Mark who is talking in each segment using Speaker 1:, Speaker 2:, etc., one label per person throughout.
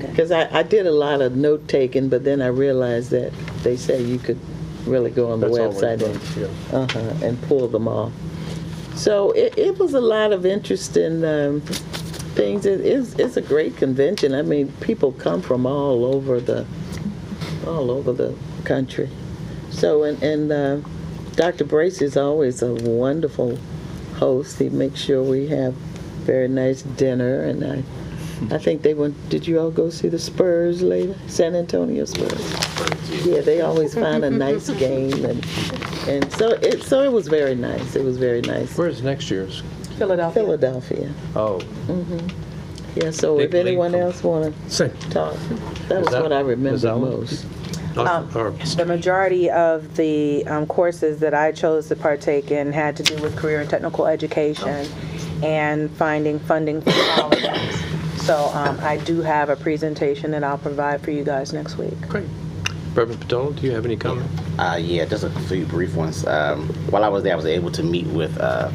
Speaker 1: Because I, I did a lot of note taking, but then I realized that they say you could really go on the
Speaker 2: That's always
Speaker 1: website
Speaker 2: nice, yeah.
Speaker 1: and, uh-huh, and pull them off. So it, it was a lot of interesting um, things. It is it's a great convention. I mean, people come from all over the all over the country. So and and uh, Dr. Brace is always a wonderful host. He makes sure we have very nice dinner, and I I think they went. Did you all go see the Spurs later? San Antonio Spurs. Yeah, they always find a nice game, and and so it so it was very nice. It was very nice.
Speaker 2: Where's next year's?
Speaker 3: Philadelphia.
Speaker 1: Philadelphia.
Speaker 2: Oh,
Speaker 1: Yeah. So if
Speaker 2: Big league
Speaker 1: anyone
Speaker 2: from-
Speaker 1: else want
Speaker 2: same.
Speaker 1: to talk, that was
Speaker 2: that-
Speaker 1: what I
Speaker 2: is
Speaker 1: remember
Speaker 2: that one?
Speaker 1: most.
Speaker 2: Or-
Speaker 3: The majority of the um, courses that I chose to partake in had to do with career and technical education and finding funding for colleges. So um, I do have a presentation that I'll provide for you guys next week.
Speaker 2: Great. Reverend Patel, do you have any comment?
Speaker 4: Uh, yeah, just a few brief ones. Um, while I was there, I was able to meet with uh,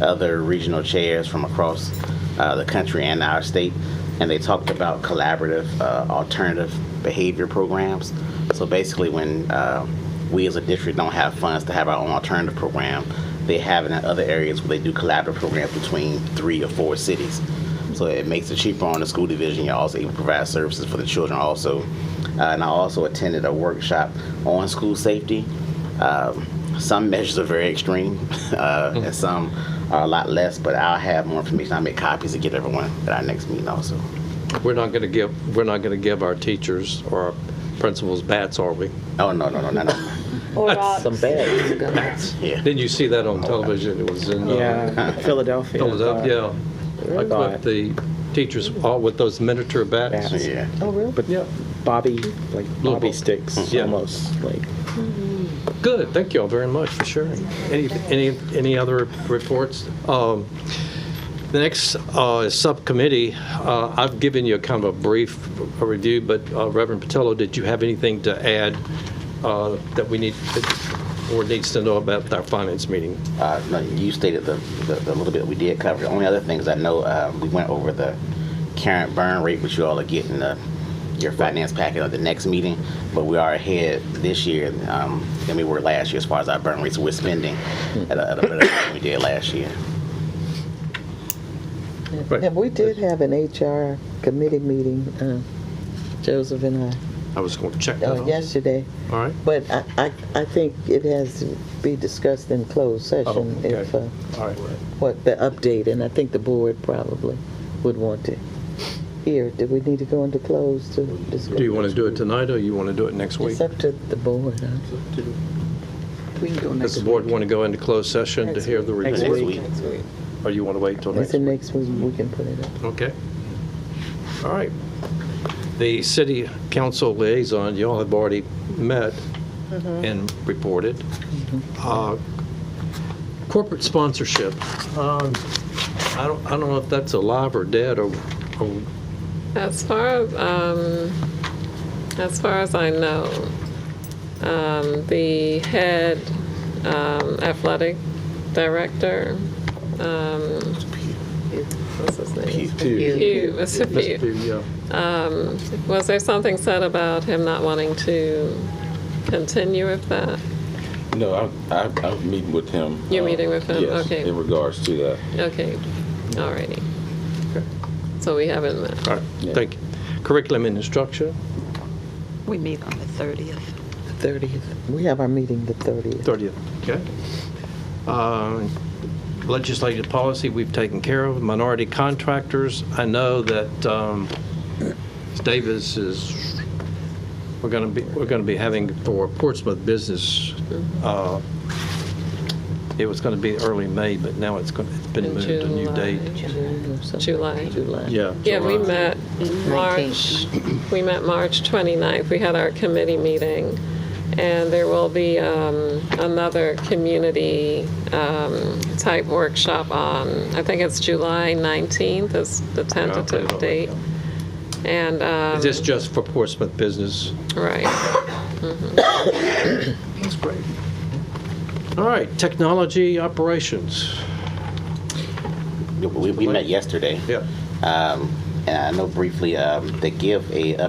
Speaker 4: other regional chairs from across uh, the country and our state, and they talked about collaborative uh, alternative behavior programs. So basically, when uh, we as a district don't have funds to have our own alternative program, they have it in other areas where they do collaborative programs between three or four cities. So it makes it cheaper on the school division. You're also able to provide services for the children also. Uh, and I also attended a workshop on school safety. Um, some measures are very extreme, uh, and some are a lot less. But I'll have more information. I will make copies to get everyone at our next meeting also.
Speaker 2: We're not going to give, we're not going to give our teachers or our principals bats, are we?
Speaker 4: Oh no no no no no!
Speaker 5: Or rocks.
Speaker 1: Some bad.
Speaker 2: Bats.
Speaker 4: Yeah.
Speaker 2: Didn't you see that on television? It was in. uh,
Speaker 6: Yeah, Philadelphia.
Speaker 2: Philadelphia, yeah. Like
Speaker 6: Right.
Speaker 2: with the teachers, all with those miniature bats.
Speaker 6: Bats.
Speaker 4: Yeah.
Speaker 1: Oh really?
Speaker 6: But
Speaker 2: Yeah.
Speaker 6: Bobby, like
Speaker 2: Little
Speaker 6: Bobby
Speaker 2: bit.
Speaker 6: sticks,
Speaker 2: Yeah.
Speaker 6: almost like.
Speaker 2: Good, thank you all very much for sharing. Any, any, any other reports? Um, The next uh, is subcommittee. Uh, I've given you a kind of a brief uh, review, but uh, Reverend Patillo, did you have anything to add uh, that we need, that board needs to know about our finance meeting?
Speaker 4: Uh, no, you stated the, the, the little bit we did cover. The only other things I know, uh, we went over the current burn rate, which you all are getting uh, your finance packet at the next meeting, but we are ahead this year um, than we were last year as far as our burn rates. We're spending at a, at a better rate than we did last year.
Speaker 2: Right.
Speaker 1: And we did have an HR committee meeting, uh, Joseph and I,
Speaker 2: I was going to check that
Speaker 1: uh,
Speaker 2: out.
Speaker 1: yesterday.
Speaker 2: All right,
Speaker 1: But I, I, I think it has to be discussed in closed session
Speaker 2: Oh, okay.
Speaker 1: if, uh,
Speaker 2: all right.
Speaker 1: what, the update, and I think the board probably would want to hear. Do we need to go into closed to discuss?
Speaker 2: Do you want to do it tonight, or you want to do it next week?
Speaker 1: It's up to the board, huh? We can go
Speaker 2: Does the board want to go into closed session to hear the
Speaker 6: Next
Speaker 2: report?
Speaker 6: week.
Speaker 2: Or you want to wait till next
Speaker 1: It's
Speaker 2: week?
Speaker 1: the next week, we can put it up.
Speaker 2: Okay. All right. The city council liaison, y'all have already met and reported. Uh, Corporate sponsorship, um, I don't, I don't know if that's alive or dead or, or-
Speaker 5: As far as um, as far as I know, um, the head um, athletic director. Um, what's his name? Pugh. Mr. Pugh.
Speaker 2: yeah.
Speaker 5: Was there something said about him not wanting to continue with that?
Speaker 7: No, I, I, I'm meeting with him.
Speaker 5: You're
Speaker 7: uh,
Speaker 5: meeting with him?
Speaker 7: yes,
Speaker 5: Okay.
Speaker 7: In regards to that.
Speaker 5: Okay, alrighty. So we haven't met.
Speaker 2: All right,
Speaker 7: Yeah.
Speaker 2: thank you. Curriculum and instruction,
Speaker 8: We meet on the 30th.
Speaker 1: Thirtieth. We have our meeting the thirtieth.
Speaker 2: 30th, okay? Um, Legislative policy, we've taken care of. Minority contractors, I know that um, Davis is, we're going to be, we're going to be having for Portsmouth Business, uh, it was going to be early May, but now it's going, it's been
Speaker 5: In
Speaker 2: moved to a new date. uh,
Speaker 5: July.
Speaker 1: July.
Speaker 2: Yeah.
Speaker 5: Yeah, we
Speaker 2: July.
Speaker 5: met March, we met March 29th. We had our committee meeting, and there will be um, another community-type workshop on, I think it's July 19th is the
Speaker 2: I'll put it
Speaker 5: tentative
Speaker 2: on.
Speaker 5: date. And, um,
Speaker 2: Is this just for Portsmouth Business?
Speaker 5: right.
Speaker 2: That's great. All right, technology operations.
Speaker 4: We, we met yesterday.
Speaker 2: Yeah.
Speaker 4: Um, And I know briefly um, they give a